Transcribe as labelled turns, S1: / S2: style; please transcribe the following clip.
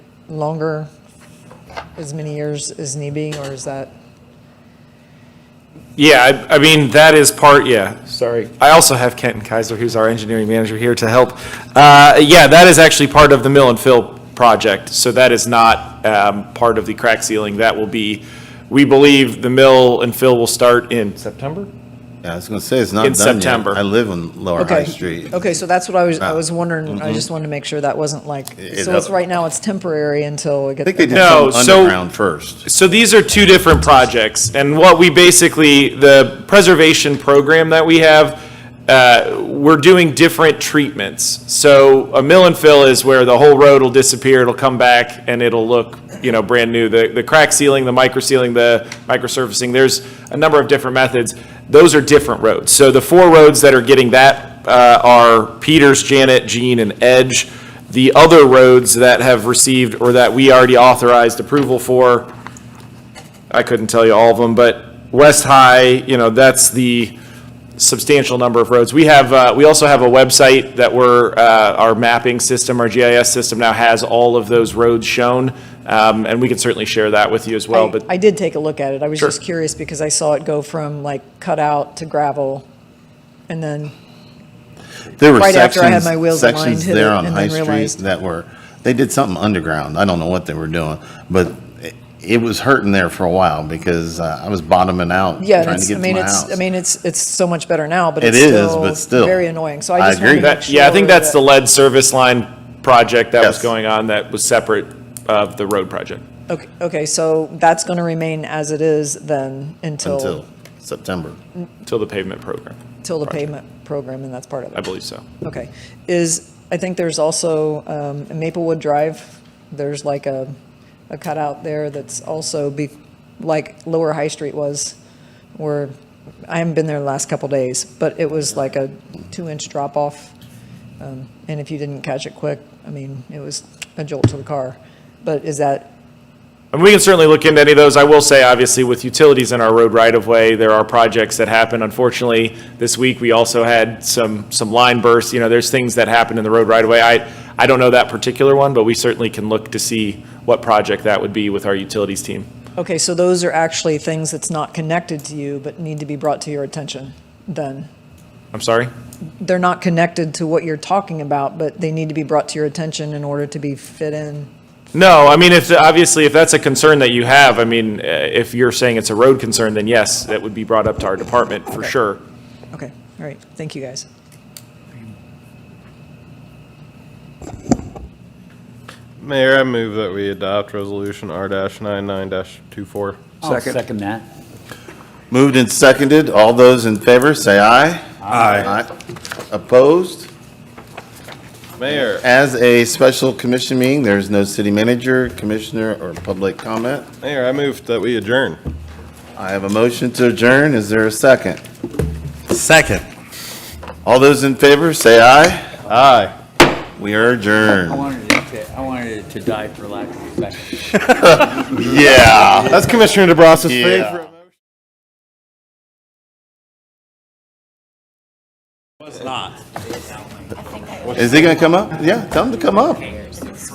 S1: longer, as many years as need be, or is that?
S2: Yeah, I, I mean, that is part, yeah, sorry. I also have Kenton Kaiser, who's our engineering manager here to help. Uh, yeah, that is actually part of the mill and fill project, so that is not, um, part of the crack sealing. That will be, we believe the mill and fill will start in September?
S3: Yeah, I was gonna say, it's not
S2: In
S3: done yet.
S2: September.
S3: I live on Lower
S1: Okay.
S3: High Street.
S1: Okay, so that's what I was, I
S3: Ah.
S1: was wondering, I just wanted to make sure that wasn't like,
S3: It-
S1: so it's,
S3: it-
S1: right now it's temporary until we
S3: I think they
S1: get.
S3: did
S2: No,
S3: some
S2: so-
S3: underground first.
S2: So these are two different projects, and what we basically, the preservation program that we have, uh, we're doing different treatments. So a mill and fill is where the whole road will disappear, it'll come back, and it'll look, you know, brand new. The, the crack sealing, the micro sealing, the micro surfacing, there's a number of different methods. Those are different roads. So the four roads that are getting that uh, are Peters, Janet, Jean, and Edge. The other roads that have received, or that we already authorized approval for, I couldn't tell you all of them, but West High, you know, that's the substantial number of roads. We have, uh, we also have a website that we're, uh, our mapping system, our GIS system now has all of those roads shown. Um, and we can certainly share that with you as well,
S1: I
S2: but
S1: I did take a look at it, I was
S2: Sure.
S1: just curious because I saw it go from like cutout to gravel, and then,
S3: There were
S1: Right after I had
S3: sections,
S1: my wheels aligned,
S3: sections
S1: hit
S3: there
S1: it,
S3: on
S1: and
S3: High
S1: then
S3: Street
S1: realized-
S3: that were, they did something underground. I don't know what they were doing, but it- it was hurting there for a while because uh, I was bottoming out,
S1: yeah, and
S3: trying to
S1: it's, I
S3: get to
S1: mean,
S3: my
S1: it's, I
S3: house.
S1: mean, it's, it's so much better now, but
S3: It
S1: it's
S3: is, but still.
S1: still very annoying, so I
S3: I
S1: just wanted to
S3: agree.
S1: make
S2: that,
S1: sure.
S2: yeah, I think that's
S1: that-
S2: the lead service line project that was
S3: Yes.
S2: going on that was separate of the road project.
S1: Okay, okay, so that's going to remain as it is then until,
S3: Until September.
S2: Till the pavement program,
S1: until the payment program, and that's part of
S2: I
S1: it.
S2: believe so.
S1: Okay. Is, I think there's also um, in Maplewood Drive, there's like a, a cutout there that's also be, like Lower High Street was, where, I haven't been there the last couple days, but it was like a two-inch drop-off. Um, And if you didn't catch it quick, I mean, it was a jolt to the car. But is that
S2: And we can certainly look into any of those. I will say, obviously, with utilities in our road right-of-way, there are projects that happen. Unfortunately, this week, we also had some, some line bursts. You know, there's things that happen in the road right-of-way. I, I don't know that particular one, but we certainly can look to see what project that would be with our utilities team.
S1: Okay, so those are actually things that's not connected to you, but need to be brought to your attention, then?
S2: I'm sorry?
S1: They're not connected to what you're talking about, but they need to be brought to your attention in order to be fit in?
S2: No, I mean, if, obviously, if that's a concern that you have, I mean, eh, if you're saying it's a road concern, then yes, that would be brought up to our department for sure.
S1: Okay, all right, thank you, guys.
S4: Mayor, I move that we adopt resolution R dash nine nine dash two four.
S5: I'll second that.
S3: Moved and seconded. All those in favor, say aye. Aye. Opposed?
S4: Mayor,
S3: As a special commission meeting, there's no city manager, commissioner, or public comment.
S4: Mayor, I move that we adjourn.
S3: I have a motion to adjourn. Is there a second?
S6: Second.
S3: All those in favor, say aye.
S4: Aye.
S3: We are
S5: I
S3: adjourned.
S5: wanted it to, I wanted it to die for lack of a second.
S3: Yeah.
S4: That's Commissioner DeBrass's
S3: Yeah.
S4: favorite.
S3: Is he gonna come up? Yeah, tell him to come up.